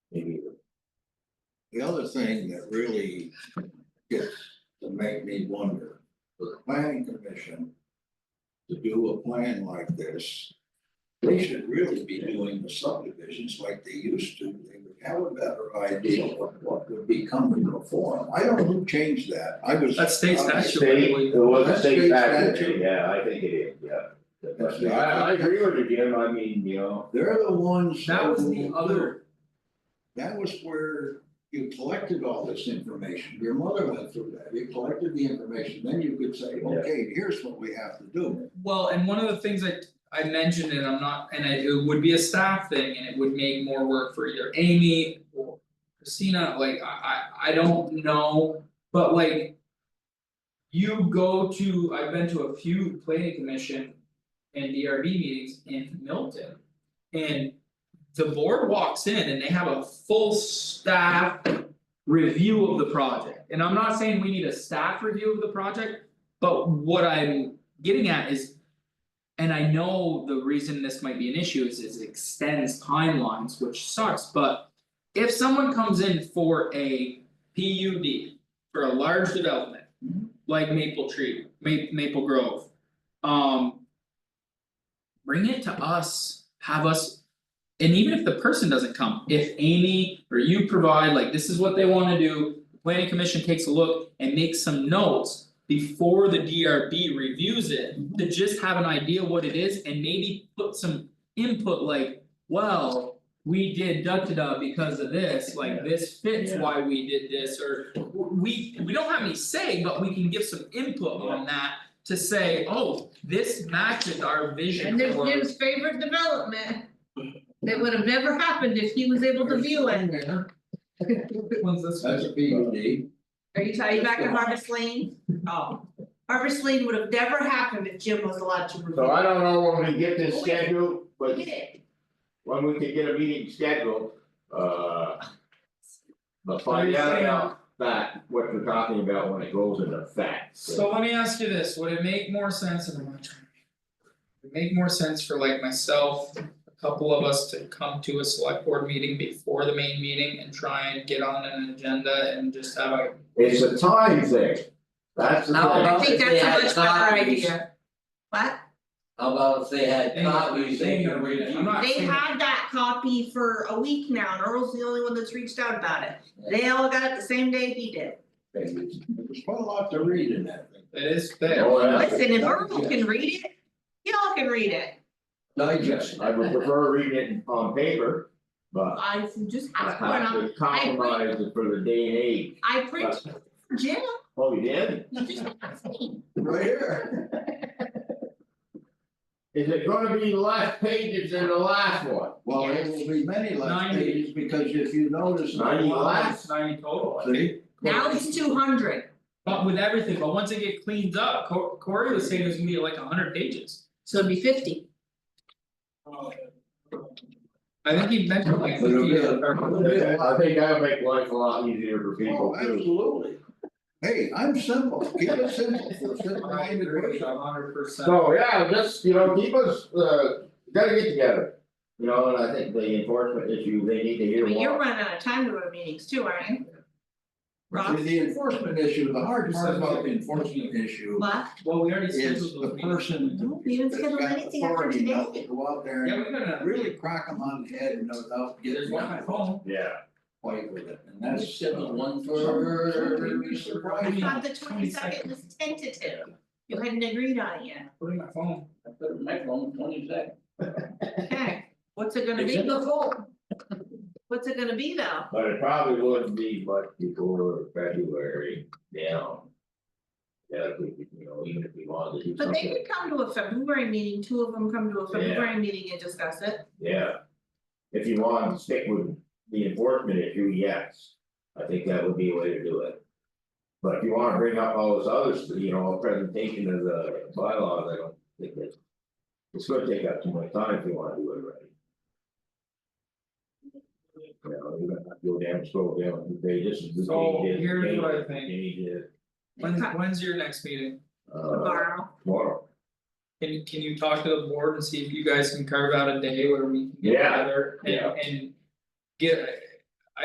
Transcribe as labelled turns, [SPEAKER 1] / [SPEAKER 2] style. [SPEAKER 1] The other thing that really gets to make me wonder, for the planning commission to do a plan like this, they should really be doing the subdivisions like they used to. They would have a better idea of what would be coming before. them. I don't know who changed that. I was.
[SPEAKER 2] That's state statute, I
[SPEAKER 3] Um, State,
[SPEAKER 2] believe.
[SPEAKER 3] it was a
[SPEAKER 1] State
[SPEAKER 3] state factor,
[SPEAKER 1] statute.
[SPEAKER 3] yeah, I think it is, yeah.
[SPEAKER 1] That's state
[SPEAKER 3] I, I
[SPEAKER 1] statute.
[SPEAKER 3] agree with you, Jim, I mean, you know,
[SPEAKER 1] They're the ones.
[SPEAKER 2] That was the
[SPEAKER 1] who-
[SPEAKER 2] other,
[SPEAKER 1] That was where you collected all this information, your mother went through that, you collected the information, then you could say,
[SPEAKER 3] Yeah.
[SPEAKER 1] okay, here's what we have to do.
[SPEAKER 2] well, and one of the things I I mentioned and I'm not, and I- it would be a staff thing and it would make more work for either Amy or Christina, like I I I don't know, but like. You go to, I've been to a few planning commission and DRB meetings in Milton. And the board walks in and they have a full staff review of the project. And I'm not saying we need a staff review of the project, but what I'm getting at is. And I know the reason this might be an issue is is it extends timelines, which sucks, but. If someone comes in for a PUD for a large development,
[SPEAKER 1] Mhm.
[SPEAKER 2] like Maple Tree, Ma- Maple Grove. Um. Bring it to us, have us and even if the person doesn't come, if Amy or you provide, like, this is what they wanna do, the planning commission takes a look and makes some notes. Before the DRB reviews it, to just have an idea what it is and maybe put some input like, well. We did da da da because of this, like this fits
[SPEAKER 3] Yeah.
[SPEAKER 2] why we did this, or w- we, we don't have any say, but we can give some input on that. To say, oh, this matches our vision
[SPEAKER 4] And
[SPEAKER 2] for.
[SPEAKER 4] there's Jim's favorite development. That would have never happened if he was able to view it.
[SPEAKER 2] When's this?
[SPEAKER 1] That's a P U D.
[SPEAKER 4] Are you talking back to Harvest Lane? Oh, Harvest Lane would have never happened if Jim was allowed to review.
[SPEAKER 3] so I don't know when we get this
[SPEAKER 4] Oh, wait.
[SPEAKER 3] scheduled, but
[SPEAKER 4] Look at it.
[SPEAKER 3] when we can get a meeting scheduled, uh. But
[SPEAKER 2] Are
[SPEAKER 3] find
[SPEAKER 2] you
[SPEAKER 3] out
[SPEAKER 2] saying-
[SPEAKER 3] about that, what we're talking about when it goes into effect.
[SPEAKER 2] So let me ask you this, would it make more sense, and I'm not trying to. Would it make more sense for like myself, a couple of us to come to a select board meeting before the main meeting and try and get on an agenda and just have a.
[SPEAKER 3] It's a time thing, that's the
[SPEAKER 5] How
[SPEAKER 3] thing.
[SPEAKER 4] I
[SPEAKER 5] about
[SPEAKER 4] think
[SPEAKER 5] if they had
[SPEAKER 4] that's a much better
[SPEAKER 5] copies?
[SPEAKER 4] idea. What?
[SPEAKER 5] How about if they had
[SPEAKER 2] Hang on,
[SPEAKER 5] copies, they
[SPEAKER 2] hang
[SPEAKER 5] could
[SPEAKER 2] on,
[SPEAKER 5] review.
[SPEAKER 2] I'm not
[SPEAKER 4] They
[SPEAKER 2] saying-
[SPEAKER 4] had that copy for a week now and Earl's the only one that's reached out about it. They all got it the same day he did.
[SPEAKER 1] There's quite a lot to read in that thing.
[SPEAKER 2] It is there.
[SPEAKER 3] Oh, yeah.
[SPEAKER 4] Listen, if Earl can read it, y'all can read it.
[SPEAKER 5] Digest.
[SPEAKER 3] I would prefer reading it on paper, but
[SPEAKER 4] I just
[SPEAKER 3] I
[SPEAKER 4] asked for
[SPEAKER 3] have
[SPEAKER 4] it.
[SPEAKER 3] to compromise it for the day and age.
[SPEAKER 4] I printed it for Jim.
[SPEAKER 3] Oh, you did?
[SPEAKER 4] He just asked me.
[SPEAKER 1] Right here.
[SPEAKER 3] Is it gonna be less pages than the last one?
[SPEAKER 1] Well, it will be many less
[SPEAKER 2] Ninety.
[SPEAKER 1] pages because if you notice. the
[SPEAKER 3] Ninety
[SPEAKER 1] lines-
[SPEAKER 3] less?
[SPEAKER 2] Ninety total.
[SPEAKER 1] See,
[SPEAKER 4] Now it's two hundred.
[SPEAKER 2] But with everything, but once it get cleaned up, Cor- Corey was saying it was gonna be like a hundred pages.
[SPEAKER 4] So it'd be fifty.
[SPEAKER 2] I think he mentioned like
[SPEAKER 1] But it'll
[SPEAKER 2] fifty
[SPEAKER 1] be
[SPEAKER 2] or.
[SPEAKER 1] a- it'll be a lot.
[SPEAKER 3] I think that would make life a lot easier for people
[SPEAKER 1] Oh,
[SPEAKER 3] too.
[SPEAKER 1] absolutely. Hey, I'm simple, give us simple for simple.
[SPEAKER 2] I agree, a hundred percent.
[SPEAKER 3] So, yeah, just, you know, keep us, uh, gotta get together. You know, and I think the enforcement issue, they need to hear
[SPEAKER 4] But you're
[SPEAKER 3] more.
[SPEAKER 4] running out of time to run meetings too, aren't you? Rob,
[SPEAKER 1] The enforcement issue, the hard part about the enforcement issue
[SPEAKER 4] what?
[SPEAKER 2] Well, we already scheduled
[SPEAKER 1] is
[SPEAKER 2] those
[SPEAKER 1] the
[SPEAKER 2] meetings.
[SPEAKER 1] person.
[SPEAKER 4] No, we didn't
[SPEAKER 1] that's
[SPEAKER 4] schedule
[SPEAKER 1] got
[SPEAKER 4] anything after
[SPEAKER 1] authority now
[SPEAKER 4] today.
[SPEAKER 1] to Go out there
[SPEAKER 2] Yeah,
[SPEAKER 1] and
[SPEAKER 2] we gotta really,
[SPEAKER 1] really crack them on the head and without
[SPEAKER 2] there's
[SPEAKER 1] getting
[SPEAKER 2] one on my
[SPEAKER 1] them
[SPEAKER 2] phone.
[SPEAKER 3] Yeah.
[SPEAKER 1] fight with it, and
[SPEAKER 5] I
[SPEAKER 1] that's. uh,
[SPEAKER 5] said the one
[SPEAKER 1] Some- some
[SPEAKER 5] for.
[SPEAKER 1] people are
[SPEAKER 4] I
[SPEAKER 1] surprised.
[SPEAKER 4] thought the twenty second was tentative. You hadn't agreed on it yet.
[SPEAKER 2] Put in my phone.
[SPEAKER 5] I put it in my phone, twenty seconds.
[SPEAKER 4] Okay, what's it gonna
[SPEAKER 5] It's in
[SPEAKER 4] be?
[SPEAKER 5] the phone.
[SPEAKER 4] What's it gonna be though?
[SPEAKER 3] But it probably wouldn't be much before February now. Yeah, if we, could, you know, even if we wanted to do
[SPEAKER 4] But they
[SPEAKER 3] something,
[SPEAKER 4] could come to a February meeting, two of them come to a
[SPEAKER 3] Yeah.
[SPEAKER 4] February meeting and discuss it.
[SPEAKER 3] yeah. If you want to stick with the enforcement issue, yes, I think that would be a way to do it. But if you wanna bring up all this others, you know, a presentation of the bylaws, I don't think that. It's gonna take up too much time if you wanna do it right. You know, you're gonna have to go down, scroll down, and say, this is the
[SPEAKER 2] So,
[SPEAKER 3] changes,
[SPEAKER 2] here's what I
[SPEAKER 3] changes,
[SPEAKER 2] think.
[SPEAKER 3] changes,
[SPEAKER 2] When's when's your next meeting?
[SPEAKER 3] uh,
[SPEAKER 4] Tomorrow,
[SPEAKER 3] tomorrow.
[SPEAKER 2] Can you can you talk to the board and see if you guys can carve out a day where we can get
[SPEAKER 3] Yeah,
[SPEAKER 2] together and
[SPEAKER 3] yeah.
[SPEAKER 2] and. Get,